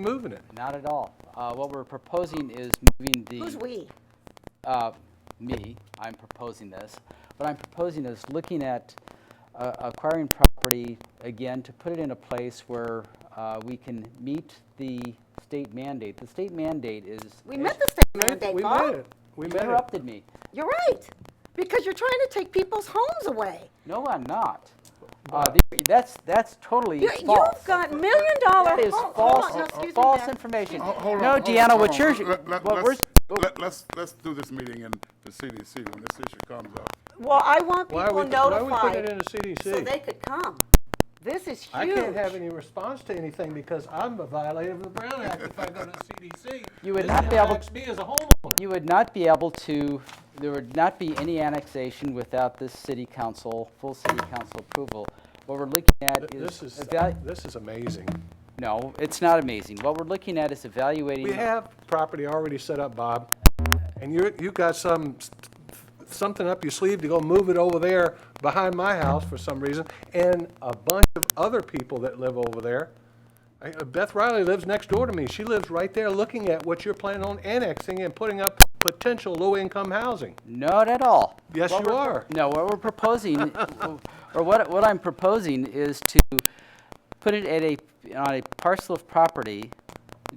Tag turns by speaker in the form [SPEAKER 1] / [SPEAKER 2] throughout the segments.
[SPEAKER 1] moving it.
[SPEAKER 2] Not at all. Uh, What we're proposing is moving the.
[SPEAKER 3] Who's we?
[SPEAKER 2] uh, me, I'm proposing this. What I'm proposing is looking at uh, acquiring property, again, to put it in a place where uh, we can meet the state mandate. The state mandate is.
[SPEAKER 3] We met the state
[SPEAKER 1] We made-
[SPEAKER 3] mandate,
[SPEAKER 1] We
[SPEAKER 3] Paul.
[SPEAKER 1] made it. We
[SPEAKER 2] You
[SPEAKER 1] made it.
[SPEAKER 2] interrupted me.
[SPEAKER 3] You're right, because you're trying to take people's homes away.
[SPEAKER 2] No, I'm not. Uh, the- That's, that's totally
[SPEAKER 3] You-
[SPEAKER 2] false.
[SPEAKER 3] You've got million dollar.
[SPEAKER 2] That is
[SPEAKER 3] home-
[SPEAKER 2] false, uh,
[SPEAKER 3] hold on, no, excuse me,
[SPEAKER 2] false
[SPEAKER 3] ma'am.
[SPEAKER 2] information.
[SPEAKER 4] Ho- Oh, Hold on.
[SPEAKER 2] No,
[SPEAKER 4] hold on,
[SPEAKER 2] Deanna,
[SPEAKER 4] hold
[SPEAKER 2] what
[SPEAKER 4] on.
[SPEAKER 2] you're,
[SPEAKER 4] Let- let-
[SPEAKER 2] what we're, oh.
[SPEAKER 4] let's- let- Let's, let's do this meeting in the CDC when this issue comes up.
[SPEAKER 3] Well, I want
[SPEAKER 1] Why are we,
[SPEAKER 3] people
[SPEAKER 1] why are we putting it in
[SPEAKER 3] notified
[SPEAKER 1] the
[SPEAKER 3] so they
[SPEAKER 1] CDC?
[SPEAKER 3] could come. This is huge.
[SPEAKER 1] I can't have any response to anything because I'm a violator of the Brown Act if I go to the CDC.
[SPEAKER 2] You would
[SPEAKER 1] This
[SPEAKER 2] not be able-
[SPEAKER 1] impacts me as a homeowner.
[SPEAKER 2] You would not be able to, there would not be any annexation without this city council, full city council approval. What we're looking at is.
[SPEAKER 1] This is,
[SPEAKER 2] evalu-
[SPEAKER 1] this is amazing.
[SPEAKER 2] No, it's not amazing. What we're looking at is evaluating.
[SPEAKER 1] We have property already set up, Bob, and you're, you got some, something up your sleeve to go move it over there behind my house for some reason, and a bunch of other people that live over there. I- uh, Beth Riley lives next door to me. She lives right there looking at what you're planning on annexing and putting up potential low-income housing.
[SPEAKER 2] Not at all.
[SPEAKER 1] Yes,
[SPEAKER 2] What
[SPEAKER 1] you
[SPEAKER 2] we're-
[SPEAKER 1] are.
[SPEAKER 2] No, what we're proposing, or what, what I'm proposing is to put it at a, on a parcel of property,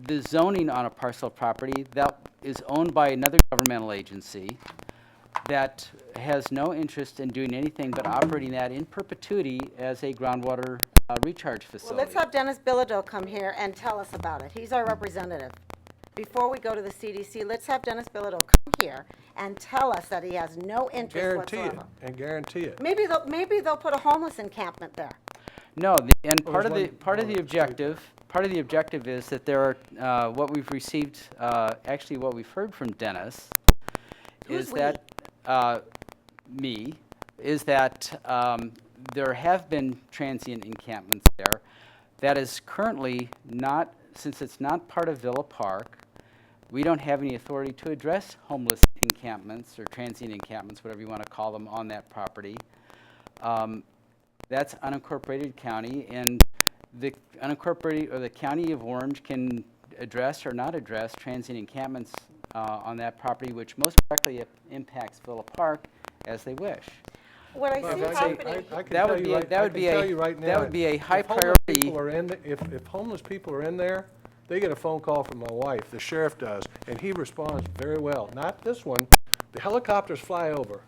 [SPEAKER 2] the zoning on a parcel of property that is owned by another governmental agency that has no interest in doing anything but operating that in perpetuity as a groundwater uh, recharge
[SPEAKER 3] Well,
[SPEAKER 2] facility.
[SPEAKER 3] let's have Dennis Bilodeau come here and tell us about it. He's our representative. Before we go to the CDC, let's have Dennis Bilodeau come here and tell us that he has no interest
[SPEAKER 1] Guarantee it,
[SPEAKER 3] whatsoever.
[SPEAKER 1] and guarantee it.
[SPEAKER 3] Maybe they'll, maybe they'll put a homeless encampment there.
[SPEAKER 2] No, the- and part of
[SPEAKER 1] there's
[SPEAKER 2] the,
[SPEAKER 1] one-
[SPEAKER 2] part of the objective, part of the objective is that there are, uh, what we've received, uh, actually what we've heard from Dennis,
[SPEAKER 3] Who's
[SPEAKER 2] is that, uh, me, is that um, there have been transient encampments there. That is currently not, since it's not part of Villa Park, we don't have any authority to address homeless encampments or transient encampments, whatever you want to call them, on that property. Um, That's unincorporated county, and the unincorporated, or the county of Orange can address or not address transient encampments uh, on that property, which most directly i- impacts Villa Park as they wish.
[SPEAKER 3] What I
[SPEAKER 1] Well,
[SPEAKER 3] see
[SPEAKER 1] that's a-
[SPEAKER 3] happening,
[SPEAKER 1] I- I can
[SPEAKER 2] That would
[SPEAKER 1] tell you
[SPEAKER 2] be a-
[SPEAKER 1] right-
[SPEAKER 2] that
[SPEAKER 1] I can
[SPEAKER 2] would be
[SPEAKER 1] tell
[SPEAKER 2] a-
[SPEAKER 1] you right
[SPEAKER 2] that
[SPEAKER 1] now,
[SPEAKER 2] would be a
[SPEAKER 1] if
[SPEAKER 2] high
[SPEAKER 1] homeless
[SPEAKER 2] priority-
[SPEAKER 1] people are in the- If, if homeless people are in there, they get a phone call from my wife, the sheriff does, and he responds very well. Not this one, the helicopters fly over,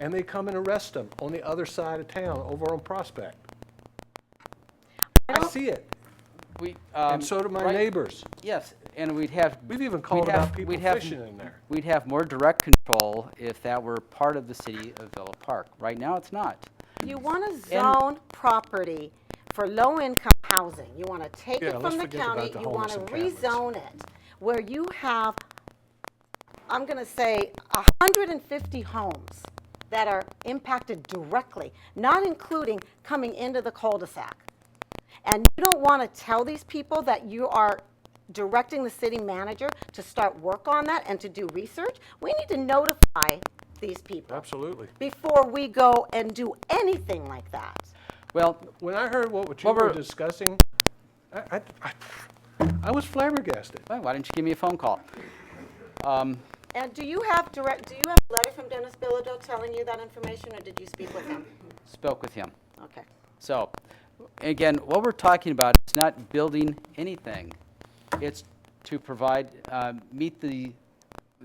[SPEAKER 1] and they come and arrest them on the other side of town, over on Prospect. I see it,
[SPEAKER 2] We, um,
[SPEAKER 1] and so do my
[SPEAKER 2] right-
[SPEAKER 1] neighbors.
[SPEAKER 2] Yes, and we'd have.
[SPEAKER 1] We've even called
[SPEAKER 2] we'd have-
[SPEAKER 1] out people
[SPEAKER 2] we'd have-
[SPEAKER 1] fishing in there.
[SPEAKER 2] We'd have more direct control if that were part of the city of Villa Park. Right now, it's not.
[SPEAKER 3] you want to zone property for low-income housing. You want to take
[SPEAKER 1] Yeah,
[SPEAKER 3] it
[SPEAKER 1] let's
[SPEAKER 3] from the
[SPEAKER 1] forget about
[SPEAKER 3] county,
[SPEAKER 1] the
[SPEAKER 3] you want to
[SPEAKER 1] homeless encampments.
[SPEAKER 3] rezone it, where you have, I'm going to say, 150 homes that are impacted directly, not including coming into the cul-de-sac. And you don't want to tell these people that you are directing the city manager to start work on that and to do research? We need to notify these people
[SPEAKER 1] Absolutely.
[SPEAKER 3] before we go and do anything like that.
[SPEAKER 2] Well,
[SPEAKER 1] When I heard what what you
[SPEAKER 2] Well,
[SPEAKER 1] were
[SPEAKER 2] we're-
[SPEAKER 1] discussing, I, I, I- I was flabbergasted.
[SPEAKER 2] why why don't you give me a phone call?
[SPEAKER 3] And do you have direct, do you have a letter from Dennis Bilodeau telling you that information, or did you speak with him?
[SPEAKER 2] Spoke with him.
[SPEAKER 3] Okay.
[SPEAKER 2] So, again, what we're talking about is not building anything. It's to provide, uh, meet the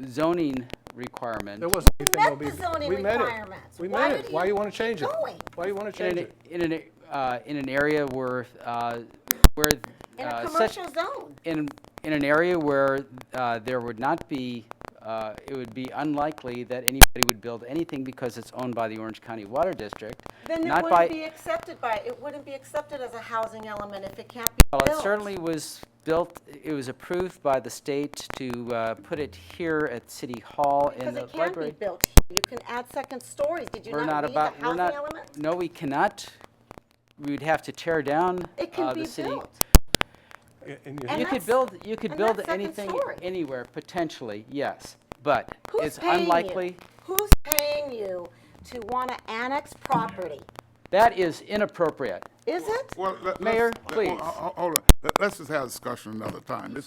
[SPEAKER 2] zoning requirement.
[SPEAKER 1] There wasn't anything.
[SPEAKER 3] met
[SPEAKER 1] that'll be-
[SPEAKER 3] the zoning
[SPEAKER 1] we met it.
[SPEAKER 3] requirements.
[SPEAKER 1] We
[SPEAKER 3] Why
[SPEAKER 1] met
[SPEAKER 3] did
[SPEAKER 1] it. Why
[SPEAKER 3] you
[SPEAKER 1] you want to change it?
[SPEAKER 3] do it?
[SPEAKER 1] Why you want to
[SPEAKER 2] In
[SPEAKER 1] change
[SPEAKER 2] an,
[SPEAKER 1] it?
[SPEAKER 2] in an, uh, in an area where, uh, where.
[SPEAKER 3] In a
[SPEAKER 2] uh, such-
[SPEAKER 3] commercial zone.
[SPEAKER 2] in, in an area where uh, there would not be, uh, it would be unlikely that anybody would build anything because it's owned by the Orange County Water District,
[SPEAKER 3] Then it
[SPEAKER 2] not by...
[SPEAKER 3] wouldn't be accepted by, it wouldn't be accepted as a housing element if it can't be
[SPEAKER 2] Well,
[SPEAKER 3] built.
[SPEAKER 2] it certainly was built, it was approved by the state to uh, put it here at City Hall in
[SPEAKER 3] Because
[SPEAKER 2] the
[SPEAKER 3] it can be
[SPEAKER 2] library.
[SPEAKER 3] built. You can add second stories. Did you
[SPEAKER 2] We're not
[SPEAKER 3] not read the
[SPEAKER 2] about, we're
[SPEAKER 3] housing
[SPEAKER 2] not,
[SPEAKER 3] element?
[SPEAKER 2] no, we cannot, we would have to tear down
[SPEAKER 3] It
[SPEAKER 2] uh,
[SPEAKER 3] can be
[SPEAKER 2] the city.
[SPEAKER 3] built.
[SPEAKER 1] And- and you-
[SPEAKER 3] And
[SPEAKER 2] You could
[SPEAKER 3] that's-
[SPEAKER 2] build, you could
[SPEAKER 3] and
[SPEAKER 2] build
[SPEAKER 3] that's second
[SPEAKER 2] anything,
[SPEAKER 3] story.
[SPEAKER 2] anywhere, potentially, yes, but
[SPEAKER 3] Who's
[SPEAKER 2] it's
[SPEAKER 3] paying you?
[SPEAKER 2] unlikely.
[SPEAKER 3] Who's paying you to want to annex property
[SPEAKER 2] That is inappropriate.
[SPEAKER 3] Is it?
[SPEAKER 4] Well, let- let's-
[SPEAKER 2] Mayor,
[SPEAKER 4] let- well,
[SPEAKER 2] please.
[SPEAKER 4] ho- ho- Hold on, Let- let's just have a discussion another time. This